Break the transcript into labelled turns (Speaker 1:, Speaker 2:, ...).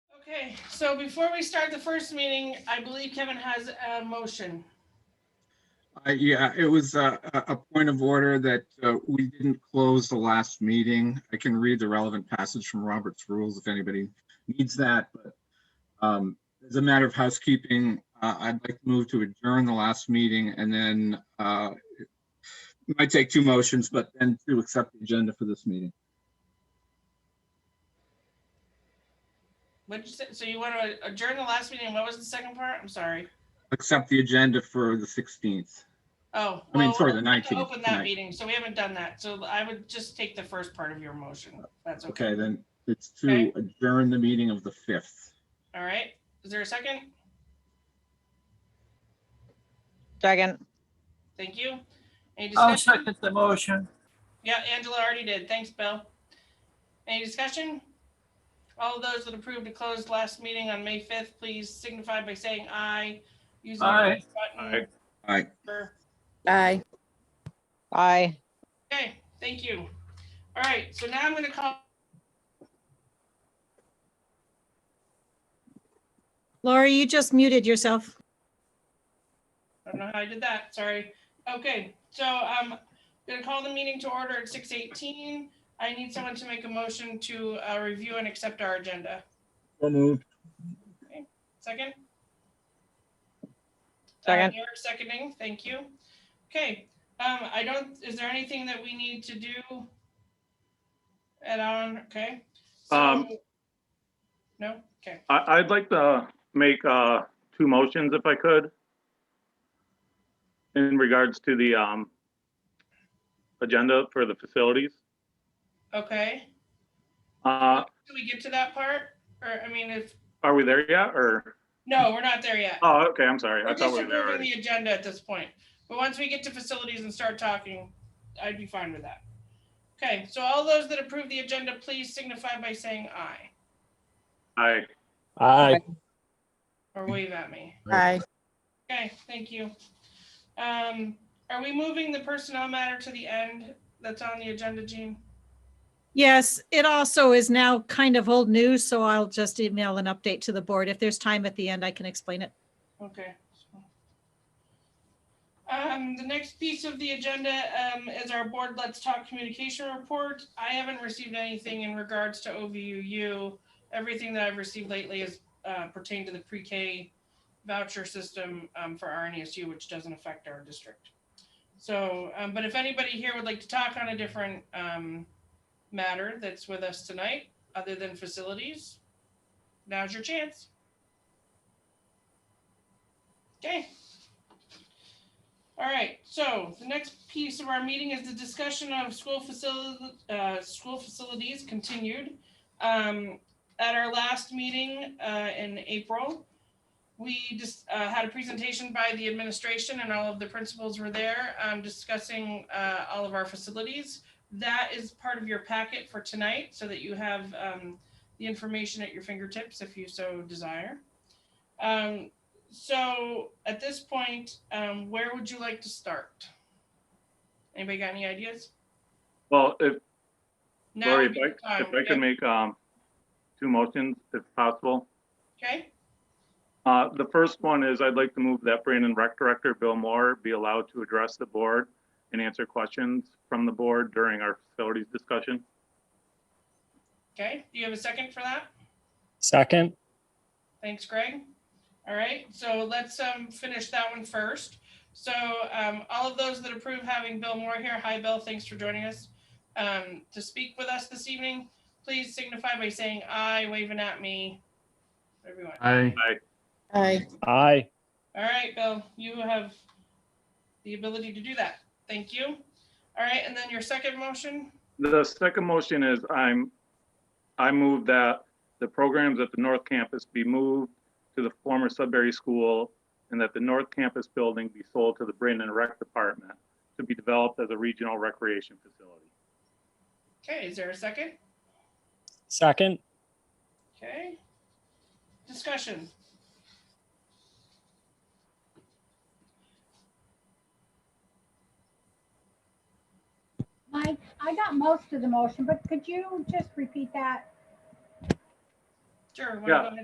Speaker 1: Okay, so before we start the first meeting, I believe Kevin has a motion.
Speaker 2: Uh, Yeah, it was uh, a, a point of order that uh, we didn't close the last meeting. I can read the relevant passage from Robert's Rules if anybody needs that, but um, as a matter of housekeeping, uh, I'd like to move to adjourn the last meeting and then uh, it might take two motions, but then to accept the agenda for this meeting.
Speaker 1: What'd you say? So you want to adjourn the last meeting? What was the second part? I'm sorry.
Speaker 2: Accept the agenda for the 16th.
Speaker 1: Oh.
Speaker 2: I mean,
Speaker 1: well,
Speaker 2: sorry, the
Speaker 1: we have to
Speaker 2: 19th
Speaker 1: Open that
Speaker 2: tonight.
Speaker 1: meeting, so we haven't done that. So I would just take the first part of your motion. if That's okay.
Speaker 2: Okay, then it's
Speaker 1: Okay.
Speaker 2: to adjourn the meeting of the 5th.
Speaker 1: All right. Is there a second?
Speaker 3: Second,
Speaker 1: Thank you. Any
Speaker 4: I'll
Speaker 1: discussion?
Speaker 4: second the motion.
Speaker 1: Yeah, Angela already did. Thanks, Bill. Any discussion? All of those that approved to close last meeting on May 5th, please signify by saying aye. Using the
Speaker 4: Aye.
Speaker 1: button.
Speaker 2: Aye.
Speaker 1: Or-
Speaker 5: Aye.
Speaker 3: aye.
Speaker 1: Okay, thank you. All right, so now I'm gonna call,
Speaker 5: Laura, you just muted yourself.
Speaker 1: I don't know how I did that, sorry. Okay, so I'm gonna call the meeting to order at six eighteen. I need someone to make a motion to uh, review and accept our agenda.
Speaker 2: So moved.
Speaker 1: Second?
Speaker 3: Second.
Speaker 1: Uh, Eric seconding, thank you. Okay, um, I don't, is there anything that we need to do? Add on, okay? So-
Speaker 6: Um.
Speaker 1: No, okay.
Speaker 6: I, I'd like to make, uh, two motions if I could. In regards to the, um, agenda for the facilities.
Speaker 1: Okay,
Speaker 6: Uh,
Speaker 1: do we get to that part? Or, I mean, if,
Speaker 6: are we there yet or?
Speaker 1: no, we're not there yet.
Speaker 6: Oh, okay, I'm sorry. I
Speaker 1: We're
Speaker 6: thought
Speaker 1: just
Speaker 6: we were there
Speaker 1: approving
Speaker 6: already.
Speaker 1: the agenda at this point, but once we get to facilities and start talking, I'd be fine with that. Okay, so all those that approve the agenda, please signify by saying aye
Speaker 6: Aye.
Speaker 7: Aye.
Speaker 1: or wave at me.
Speaker 5: Aye.
Speaker 1: Okay, thank you. Um, are we moving the personnel matter to the end that's on the agenda, Jean?
Speaker 5: Yes, it also is now kind of old news, so I'll just email an update to the board. If there's time at the end, I can explain it.
Speaker 1: Okay. Um, the next piece of the agenda, um, is our board Let's Talk communication report. I haven't received anything in regards to OVUU. Everything that I've received lately is, uh, pertained to the pre-K voucher system, um, for RNESU, which doesn't affect our district. So, um, but if anybody here would like to talk on a different, um, matter that's with us tonight, other than facilities, now's your chance. Okay. All right, so the next piece of our meeting is the discussion of school facility, uh, school facilities continued. Um, at our last meeting, uh, in April, we just, uh, had a presentation by the administration and all of the principals were there, um, discussing, uh, all of our facilities. That is part of your packet for tonight, so that you have, um, the information at your fingertips if you so desire. Um, so at this point, um, where would you like to start? Anybody got any ideas?
Speaker 6: Well, if,
Speaker 1: Now
Speaker 6: Lori,
Speaker 1: would
Speaker 6: if
Speaker 1: be the
Speaker 6: I, if
Speaker 1: time.
Speaker 6: I could make, um, two motions if possible.
Speaker 1: Okay,
Speaker 6: Uh, The first one is I'd like to move that Brandon Rec Director Bill Moore be allowed to address the board and answer questions from the board during our facilities discussion.
Speaker 1: okay. Do you have a second for that?
Speaker 7: Second,
Speaker 1: Thanks, Greg. All right, so let's um finish that one first. So um all of those that approve having Bill Moore here, hi Bill, thanks for joining us. Um to speak with us this evening, please signify by saying aye, waving at me. Everyone.
Speaker 2: Aye.
Speaker 5: Aye.
Speaker 7: aye.
Speaker 1: All right, Bill, you have the ability to do that. Thank you. All right, and then your second motion,
Speaker 6: The second motion is I'm, I move that the programs at the North Campus be moved to the former Sudbury School and that the North Campus building be sold to the Brandon Rec Department to be developed as a regional recreation facility.
Speaker 1: okay, is there a second?
Speaker 7: Second,
Speaker 1: Okay. Discussion.
Speaker 8: Mike, I got most of the motion, but could you just repeat that?
Speaker 1: Sure. wanna
Speaker 6: Yeah.
Speaker 1: go ahead?